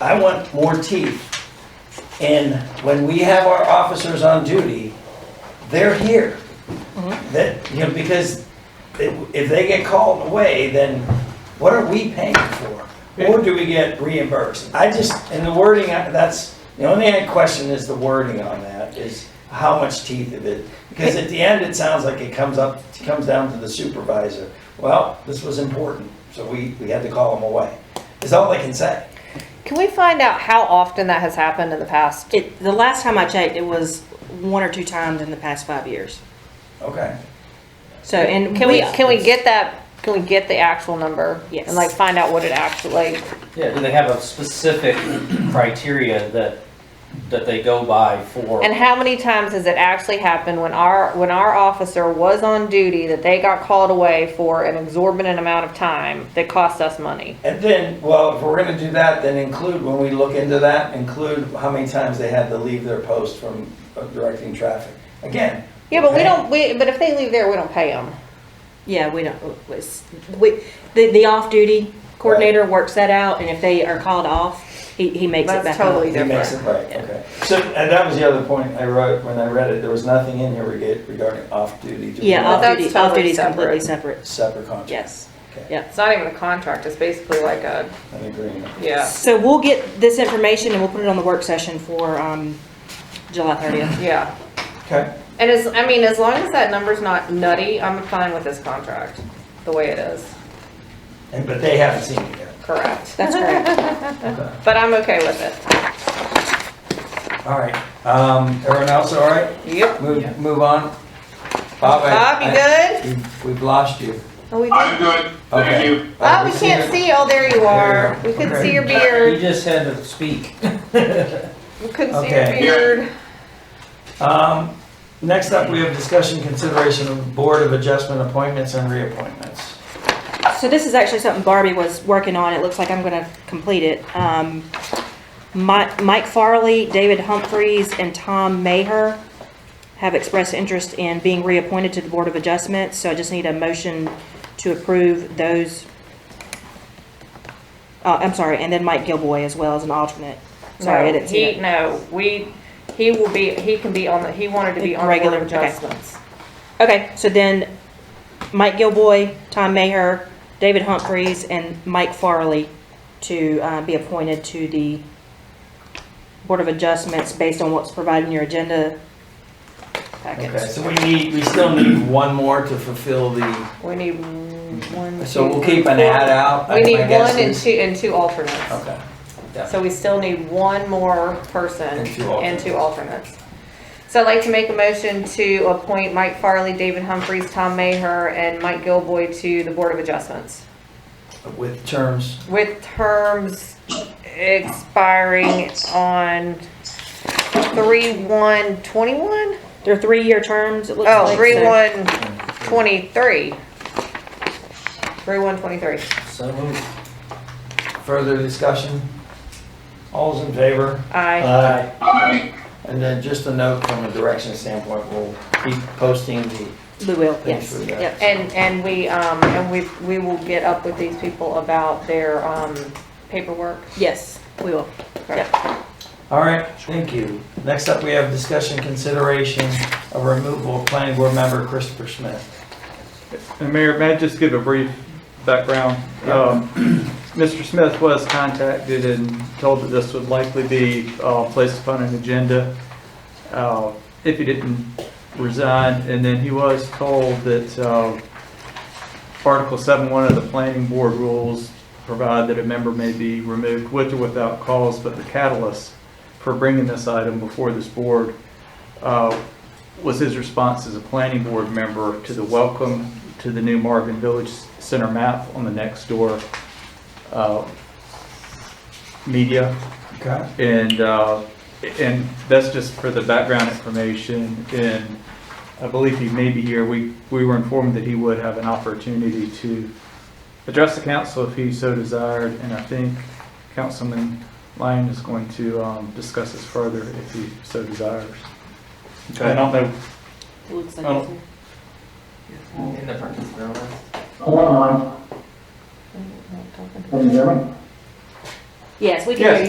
I want more teeth. And when we have our officers on duty, they're here. That, you know, because if if they get called away, then what are we paying for? Or do we get reimbursed? I just, and the wording, I- that's, the only thing I question is the wording on that, is how much teeth of it. Because at the end, it sounds like it comes up, it comes down to the supervisor. Well, this was important, so we, we had to call them away, is all I can say. Can we find out how often that has happened in the past? It, the last time I checked, it was one or two times in the past five years. Okay. So, and Can we, can we get that, can we get the actual number? Yes. And like find out what it actually, like, Yeah, do they have a specific criteria that, that they go by for? and how many times has it actually happened when our, when our officer was on duty that they got called away for an exorbitant amount of time that cost us money? And then, well, if we're gonna do that, then include, when we look into that, include how many times they had to leave their post from uh, directing traffic. Again. Yeah, but we okay? don't, we, but if they leave there, we don't pay them. Yeah, we don't, it's, we, the, the off-duty coordinator works that out, and if they are called off, he, he makes it back That's totally up. He makes it different. right, okay. So, and that was the other point I wrote when I read it, there was nothing in here rega- regarding off-duty. to Yeah, work, that's off-duty, totally off-duty is separate. completely separate, Separate contract. yes. Okay, Yeah. It's not even a contract, it's basically like a, an agreement. yeah, So we'll get this information and we'll put it on the work session for, um, July thirtieth. yeah. Okay, And as, I mean, as long as that number's not nutty, I'm fine with this contract, the way it is, and, but they haven't seen it yet. correct. That's correct. Okay. But I'm okay with it. All right, um, everyone else all right? Yep. Move, move on. Bob, I- Bob, you good? I- we- We've lost you. Oh, we I'm did- good, Okay. thank you. Uh, Oh, we see can't you. see, oh, there you are. We couldn't see your You beard, just had to speak. we couldn't see your Okay. beard. Um, next up, we have discussion consideration of Board of Adjustment appointments and reappointments. So this is actually something Barbie was working on, it looks like I'm gonna complete it. Um, Mi- Mike Farley, David Humphreys, and Tom Maher have expressed interest in being reappointed to the Board of Adjustments, so I just need a motion to approve those. Uh, I'm sorry, and then Mike Gilboy as well as an alternate. Sorry, I No, didn't see He, it. no, we, he will be, he can be on the, he wanted to be on the Board Regular, of okay. Adjustments. Okay, so then Mike Gilboy, Tom Maher, David Humphreys, and Mike Farley to uh, be appointed to the Board of Adjustments based on what's provided in your agenda Okay, packets. so we need, we still need one more to fulfill the, We need one. so two, we'll keep an four. ad out. We need my guess one and is- two, and two alternates. Okay, So we still need one more person And two and two alternates. So I'd like to make a motion to appoint Mike Farley, David Humphries, Tom Maher, and Mike Gilboy to the Board of Adjustments with terms, with terms expiring on three one twenty-one? They're three-year terms, it looks like. Oh, so- three one twenty-three. Three one twenty-three. So moved. further discussion? All's in favor? Aye. Aye. Aye. And then just a note from a direction standpoint, we'll keep posting the, We will, Thanks yes. for that. Yep. And, and we, um, and we, we will get up with these people about their, um, paperwork. Yes, we will. all right, thank you. Next up, we have discussion consideration of removal of planning board member Christopher Smith. And Mayor, may I just give a brief background? Um, Mr. Smith was contacted and told that this would likely be uh, placed upon an agenda uh, if he didn't resign, and then he was told that uh, Article 7.1 of the Planning Board rules provide that a member may be removed with or without cause, but the catalyst for bringing this item before this board uh, was his response as a planning board member to the welcome to the new Marvin Village Center map on the next door uh, media. Okay. And, uh, and that's just for the background information. And I believe he may be here. We, we were informed that he would have an opportunity to address the council if he so desired. And I think Councilman Lyon is going to um, discuss this further if he so desires. And I don't know Looks like Oh. it's- In the particular one. Hold on, can you hear me? Yes, we can Yes. hear you.